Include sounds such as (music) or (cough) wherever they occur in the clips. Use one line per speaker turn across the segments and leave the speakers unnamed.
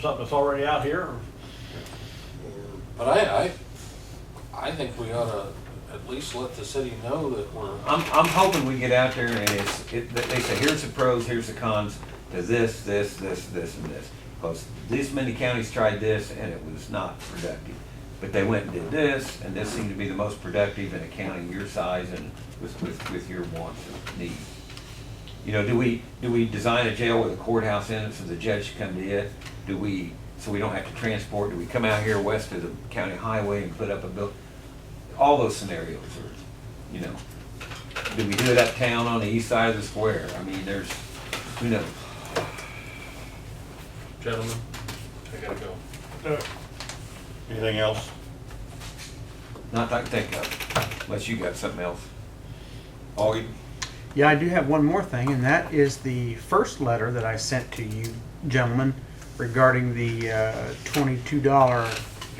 something that's already out here? or-
But I, I, I think we ought to at least let the city know that we're,
I'm, I'm hoping we get out there and it's, it, that they say, here's the pros, here's the cons to this, this, this, this, and this. Because this many counties tried this and it was not productive. But they went and did this, and this seemed to be the most productive in a county your size and with, with, with your wants and needs. You know, do we, do we design a jail with a courthouse in it so the judge can come to it? Do we, so we don't have to transport, do we come out here west of the county highway and put up a bill? All those scenarios are, you know, do we do it uptown on the east side of the square? I mean, there's, who knows?
gentlemen, I gotta go.
Anything else?
Not that I can think of, unless you got something else. Augie?
Yeah, I do have one more thing, and that is the first letter that I sent to you gentlemen regarding the uh, twenty-two dollar,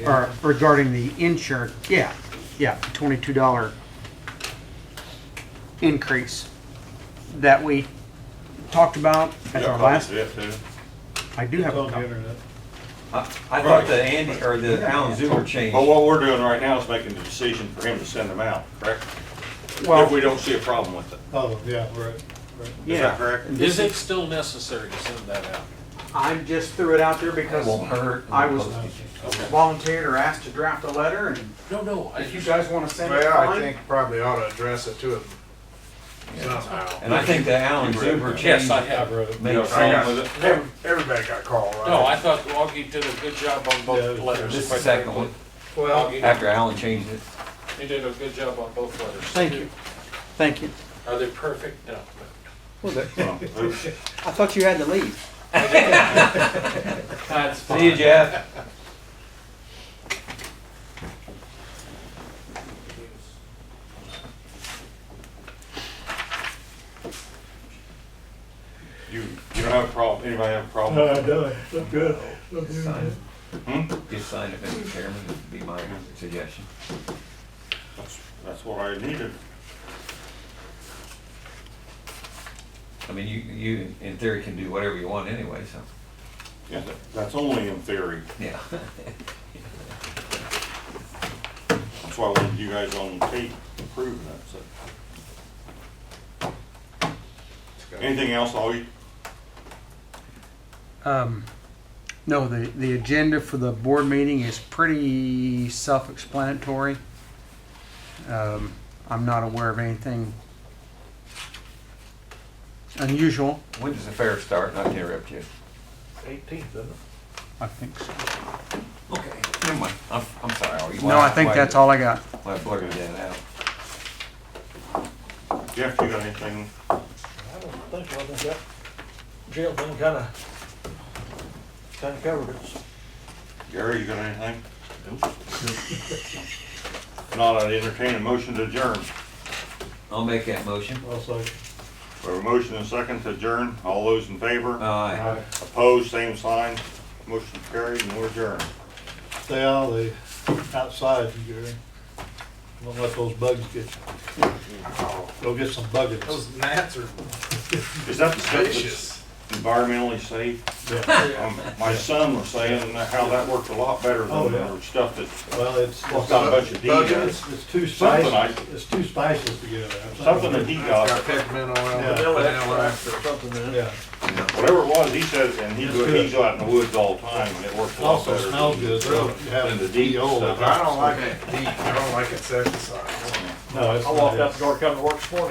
or regarding the insurance, yeah, yeah, twenty-two dollar increase that we talked about at our last, I do have a
on the
copy.
internet.
I I thought
Right. Oh,
the Andy, or the Alan Zuber
But
change,
what we're doing right now is making the decision for him to send them out, correct? If
Well,
we don't see a problem with it.
Oh, yeah, right, right.
Is
Yeah. (laughs)
that correct?
Is it still necessary to send that out?
I just threw it out there because
won't hurt.
I was
Okay.
volunteered or asked to draft a letter, and
No, no, I
if you
just,
guys want to send it,
Well, I
fine.
think probably ought to address it to him somehow.
And I think the Alan Zuber change
yes, I have.
You got a
makes
problem
sense.
with it?
Ev- Everybody got called, right?
No, I thought Augie did a good job on both
Yeah,
letters.
This is the
quite
second
frankly.
one,
Augie,
after Alan changed it.
he did a good job on both letters.
Thank you, thank you.
Are they perfect? No.
I thought you had to leave.
That's
See you, Jeff.
You, you don't have a problem, anybody have a
No,
problem?
I don't, I'm good. I'm
Just
doing
sign
good.
Hmm?
it. Just sign it, Mr. Chairman, would be my suggestion.
That's- That's what I needed.
I mean, you, you in theory can do whatever you want anyway, so,
Yeah, that- That's only in theory.
yeah. (laughs)
That's why I wanted you guys on tape approving that, so. Anything else, Augie?
Um, no, the, the agenda for the board meeting is pretty self-explanatory. Um, I'm not aware of anything unusual,
When does the fair start? Not to interrupt you.
Eighteenth, isn't it?
I think so.
Okay, never mind. I'm, I'm sorry. Are you-
No, I think that's all I got.
Why I blurted that out.
Jeff, you got anything?
I don't think, so. I think that jail thing kinda, kinda covered it.
Gary, you got anything? Nope. Not, I entertain a motion to adjourn.
I'll make that motion.
I'll say.
We have a motion and a second to adjourn. All those in favor?
Aye.
Opposed, same sign. Motion carried and we're adjourned.
Stay out of the outside, Gary. Don't let those bugs get you. Go get some
Oh,
buggers.
Those gnats are
Is that the stuff that's
vicious.
environmentally safe?
Yeah.
Um, My son was saying how that worked a lot better
Oh,
than
yeah.
the stuff that,
Well, it's,
Well, it's not a bunch of
it's,
degas.
it's too
Something I-
spicy, it's too spicy to get out.
Something that he
Got
got,
pigment
Yeah.
oil.
Vanilla
vanilla.
Something in it. Yeah.
whatever it was, he says, and he,
It's
go-
good.
he's out in the woods all the time and it works a lot
Also
better.
smells
than-
good, though. You have
Than the
the
DEO
DEO
stuff.
I don't like it deep, I don't like insecticides.
No, it's.
I walked out the door coming to work this morning,